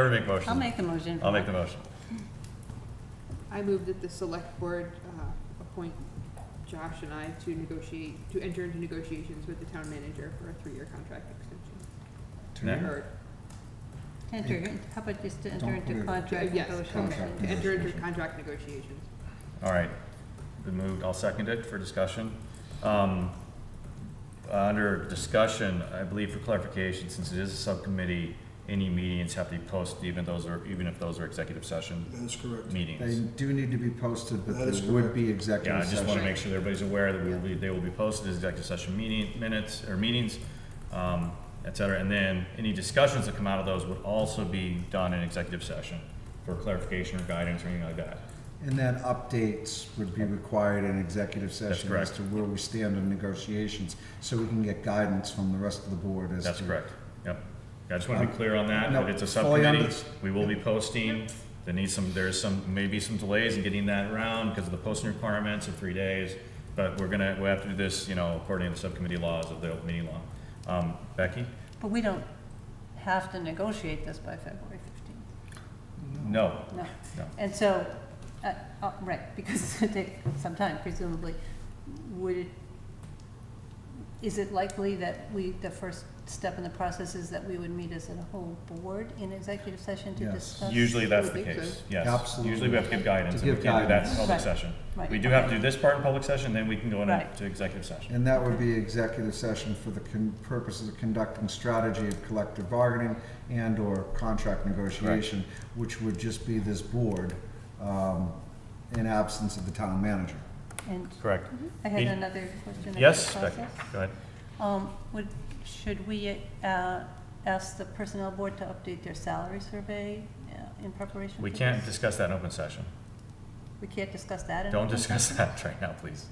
Whoever make motion. I'll make the motion. I'll make the motion. I move that the select board uh, appoint Josh and I to negotiate, to enter into negotiations with the town manager for a three-year contract extension. Next. Or, Enter, in- how about just to enter Don't put into it- contract yes, negotiations? to Contract. enter into contract negotiations. All right, been moved, I'll second it for discussion. Um, uh, Under discussion, I believe for clarification, since it is a subcommittee, any meetings have to be posted, even those are, even if those are executive session That is correct. They meetings. do need to be posted, but That is there would correct. be Yeah, I executive just wanna session. make sure everybody's aware that we will be, they will be posted as executive session meeting, minutes, or meetings, um, et cetera. And then any discussions that come out of those would also be done in executive session for clarification or guidance or anything like that. And then updates would be required in executive session as correct. to where we stand in negotiations, so we can get guidance from the rest of the board as to. That's correct, yep. I just want to be Um, clear on that, no, that it's a fully subcommittee, unders- we will be posting, there needs some, there's some, maybe some delays in getting that around because of the posting requirements of three days, but we're gonna, we have to do this, you know, according to the subcommittee laws of the open meeting law. Um, Becky? But we don't have to negotiate this by February fifteenth, No, no. no, And so, uh, uh, right, because it's gonna take some time presumably, would it, is it likely that we, the first step in the process is that we would meet as a whole board in executive session to Yes. discuss? usually that's I the would think case, so. yes. Absolutely. Usually we have to give guidance, To and we give can't do that in guidance. public Right, session. right. We do have to do this part in public session, then we can go Right. into executive session. And that would be executive session for the con- purposes of conducting strategy of collective bargaining and/or contract negotiation, which would just be this board, um, in absence of the town manager. And Correct. I had Any- another question. about Yes, the Becky, process. go ahead. Um, would, should we, uh, ask the personnel board to update their salary survey uh, in preparation for We can't this? discuss that in open session. We can't discuss that in? Don't discuss that right now, please.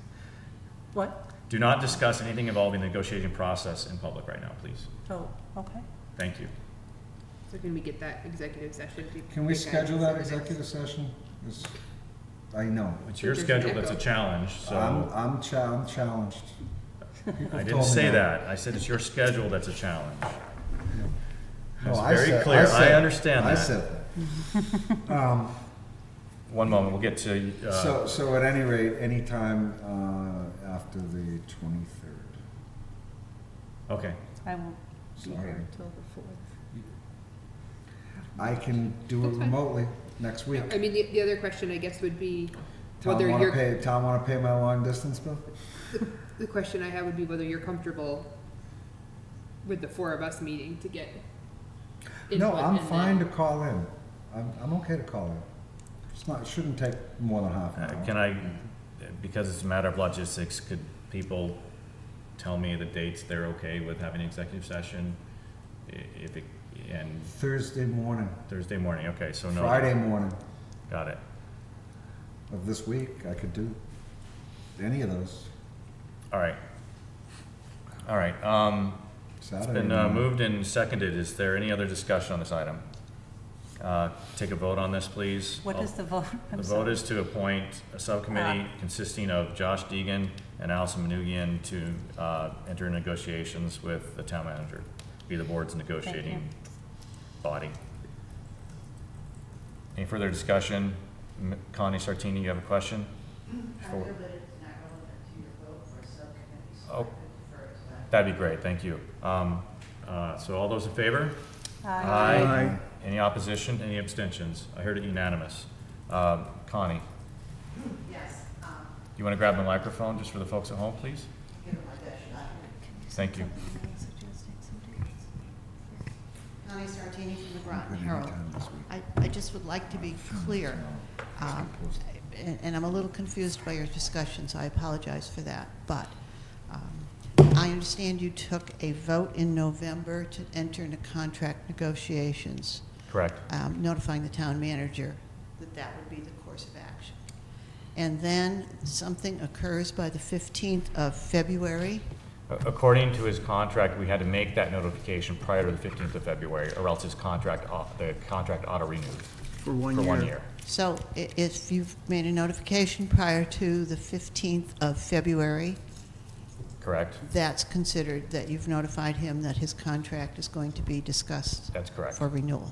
What? Do not discuss anything involving the negotiating process in public right now, please. Oh, okay. Thank you. So can we get that executive session to? Can we get schedule that guidance? executive session? Is- I know, It's your There's an schedule that's a echo. challenge, I'm, so I'm cha- I'm challenged. I Um, told didn't me say that. that. I said it's your schedule that's a challenge. No, It's I very said- clear. I said- understand I that. said that. Um, One moment, we'll get to, uh, So, so at any rate, anytime, uh, after the twenty-third. okay. I won't be Sorry. here until the fourth. I can do it That's fine. remotely next week. I mean, the, the other question, I guess, would be Tom, whether wanna you're, pay, Tom, wanna pay my long distance bill? the question I have would be whether you're comfortable with the four of us meeting to get No, input I'm and then- fine to call in. I'm, I'm okay to call in. It's not, it shouldn't take more than half an Uh, hour. Can I, because it's a matter of logistics, could people tell me the dates they're okay with having an executive session? I- If it, and Thursday morning, Thursday morning, okay, so Oh, no. Friday morning Got it. of this week, I could do any of those, All right. All right, um, It's Saturday. been uh, morning. moved and seconded. Is there any other discussion on this item? Uh, Take a vote on this, please. What is the vote? I'm Oh. The sorry. Uh, vote is to appoint a subcommittee consisting of Josh Deegan and Allison Manugian to uh, enter negotiations with the town manager, be the board's you. negotiating body. Any further discussion? M- Connie Sartini, you have a question? I For- feel that it's not relevant to your vote for a subcommittee, so Oh. I would defer it to that. That'd be great, thank you. Um, uh, So all those in favor? Aye. Aye. Any opposition, any abstentions? I heard it unanimous. Uh, Connie, Yes, um, you want to grab the microphone just for the folks at home, please? give it my best shot. Thank you. Connie Sartini from the Could Groton be Herald. anytime this week. I, I just would like to be clear, um, and and I'm a little confused by your discussion, so I apologize for that, but um, I understand you took a vote in November to enter into contract negotiations. Correct. um, notifying the town manager that that would be the course of action. And then something occurs by the 15th of February. According to his contract, we had to make that notification prior to the 15th of February, or else his contract, au- the contract auto renewed. For one year. For one year. So i- if you've made a notification prior to the 15th of February, Correct? that's considered that you've notified him that his contract is going to be discussed That's correct. for renewal.